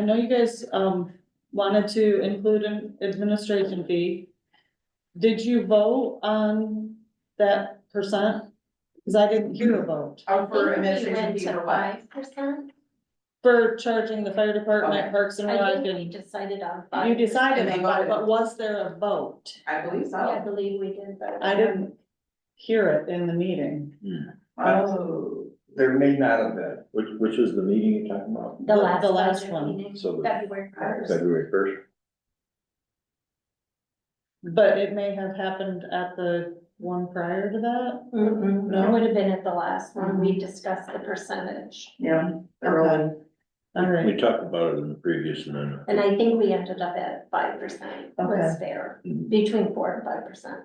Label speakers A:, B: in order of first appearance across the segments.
A: I know you guys, um, wanted to include an administration fee. Did you vote on that percent? Cause I didn't hear a vote
B: Oh, for
C: I think we
B: administration
C: went
B: fee
C: to
B: for what?
C: Five percent,
A: for charging the fire department,
B: Okay.
A: parks and
C: I
A: rec,
C: think we
A: and
C: decided on five.
A: you decided
B: And they
A: on that,
B: voted.
A: but was there a vote?
B: I believe
C: Yeah, I
B: so.
C: believe we did, but. um,
A: I didn't hear it in the meeting.
B: Oh,
D: There may not have been.
E: Which, which is the meeting you're talking about?
C: The last.
A: the last
C: budget
A: one.
C: meeting,
E: So the
C: February first.
E: February first,
A: But it may have happened at the one prior to that?
C: It
A: No?
C: would have been at the last one, we discussed the percentage,
B: yeah, early.
A: Alright,
E: we talked about it in the previous amendment.
C: and I think we ended up at five percent, was
A: Okay.
C: fair,
F: Mm.
E: Mhm.
C: between four and five percent,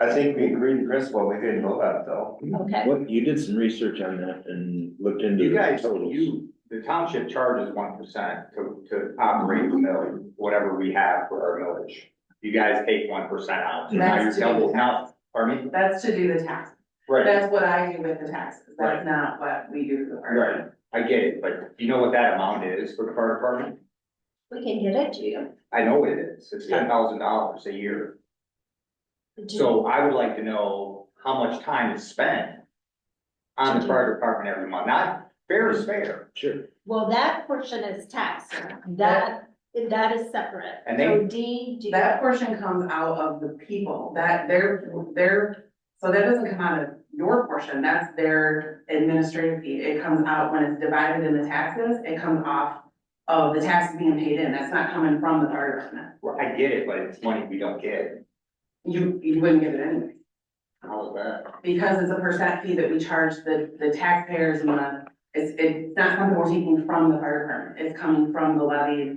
D: I think we agreed in principle, we didn't know that though.
C: okay?
E: What, you did some research on that and looked into
F: You
E: the
F: guys,
E: totals.
F: you, the township charges one percent to, to operate the mill, whatever we have for our millage. You guys take one percent out, so now you're
B: That's to do
F: double,
B: the
F: now,
B: taxes.
F: pardon me?
B: That's to do the taxes.
F: Right,
B: That's what I do with the taxes. That's
F: Right.
B: not what we do for the fire.
F: right, I get it, but do you know what that amount is for the fire department?
C: We can get it to you.
F: I know it is, it's ten thousand dollars a year,
C: Do-
F: so I would like to know how much time is spent on the fire department every month, not fair is fair,
E: Sure.
C: Well, that portion is taxed, that, that is separate.
F: And they-
C: So D, do.
B: That portion comes out of the people, that their, their, so that doesn't come out of your portion, that's their administrative fee. It comes out when it's divided in the taxes, it comes off of the taxes being paid in, that's not coming from the fire department.
F: Well, I get it, but it's money we don't get,
B: You, you wouldn't get it anyway.
F: how is that?
B: because it's a percent fee that we charge the, the taxpayers and the, it's, it's not something we're taking from the fire department, it's coming from the levy,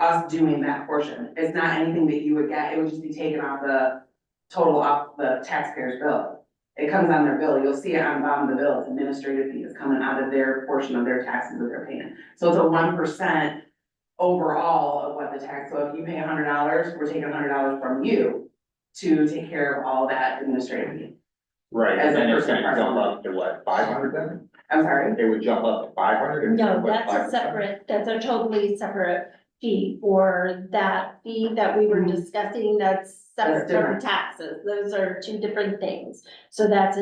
B: us doing that portion, it's not anything that you would get, it would just be taken off the total off the taxpayer's bill. It comes on their bill, you'll see it on the bottom of the bill, it's administrative fee, it's coming out of their portion of their taxes that they're paying. So it's a one percent overall of what the tax, so if you pay hundred dollars, we're taking hundred dollars from you to take care of all that administrative fee.
F: Right,
B: As
F: and
B: a
F: then it's
B: person
F: gonna
B: person.
F: jump up to what, five hundred then?
B: I'm sorry?
F: It would jump up to five hundred?
C: No, that's a separate, that's a totally separate fee for that fee that we were
B: Mhm.
C: discussing, that's
B: That's
C: separate from
B: different.
C: taxes. Those are two different things. So that's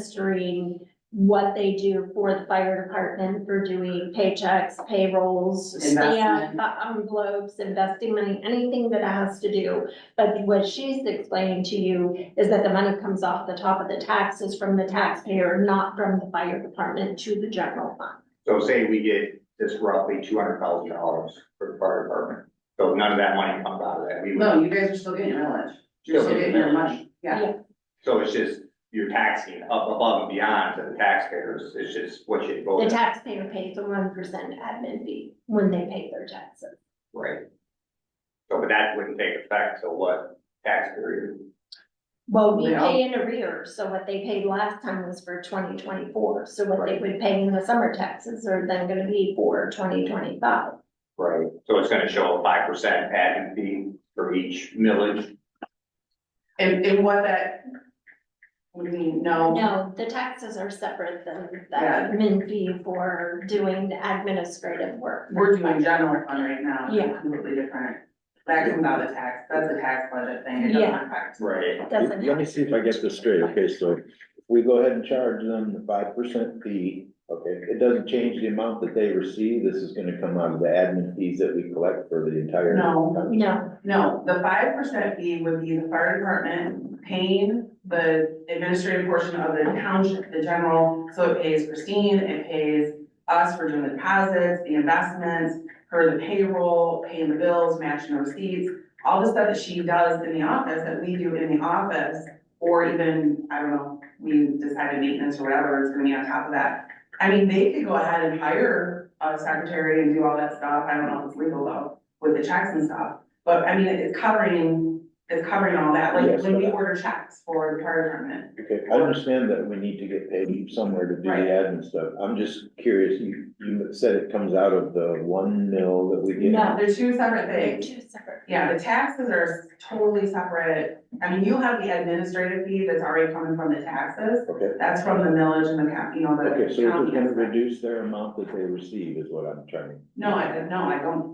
C: administering what they do for the fire department for doing paychecks, payrolls, stamp,
B: Investment.
C: uh, envelopes, investing money, anything that has to do. But what she's explaining to you is that the money comes off the top of the taxes from the taxpayer, not from the fire department to the general fund.
F: So say we get this roughly two hundred thousand dollars for the fire department, so none of that money comes out of that, we would,
B: No, you guys are still getting your mileage. You're still getting your money, yeah.
F: so it's just, you're taxing up above and beyond to the taxpayers, it's just what you
C: The
F: voted,
C: taxpayer pays the one percent admin fee when they pay their taxes.
F: right? So, but that wouldn't take effect, so what tax period?
C: Well, we
B: Yeah.
C: pay in arrears, so what they paid last time was for twenty twenty-four, so what they would pay in the summer taxes are then gonna be for twenty twenty-five.
F: Right. So it's gonna show a five percent admin fee for each millage,
B: And, and what that, what do you mean, no?
C: No, the taxes are separate than the admin fee for doing the administrative work.
B: We're doing general fund right now,
C: Yeah.
B: it's completely different. That comes out of tax, that's a tax budget thing, it
C: Yeah.
B: doesn't affect.
F: right?
C: Doesn't
E: Let me see if I get this straight. Okay, so if we go ahead and charge them the five percent fee. Okay, it doesn't change the amount that they receive. This is gonna come out of the admin fees that we collect for the entire.
B: No.
C: No,
B: No, the five percent fee would be the fire department paying the administrative portion of the township, the general, so it pays Christine, it pays us for doing the deposits, the investments, her the payroll, paying the bills, matching the receipts, all the stuff that she does in the office, that we do in the office, or even, I don't know, we decided maintenance or whatever is gonna be on top of that. I mean, they could go ahead and hire a secretary and do all that stuff, I don't know if it's legal though, with the checks and stuff, but I mean, it's covering is covering all that, like
E: Yes.
B: when we order checks for the fire department.
E: Okay, I understand that we need to get paid somewhere to do the
B: Right.
E: admin stuff. I'm just curious, you, you said it comes out of the one mil that we get.
C: No.
B: They're two separate
C: They're
B: things.
C: two separate.
B: Yeah, the taxes are totally separate. I mean, you have the administrative fee that's already coming from the taxes.
E: Okay,
B: That's from the millage and the cap, you know, the.
E: okay, so we're just
B: county
E: gonna
B: aspect.
E: reduce their amount that they receive is what I'm trying to
B: No, I, no, I don't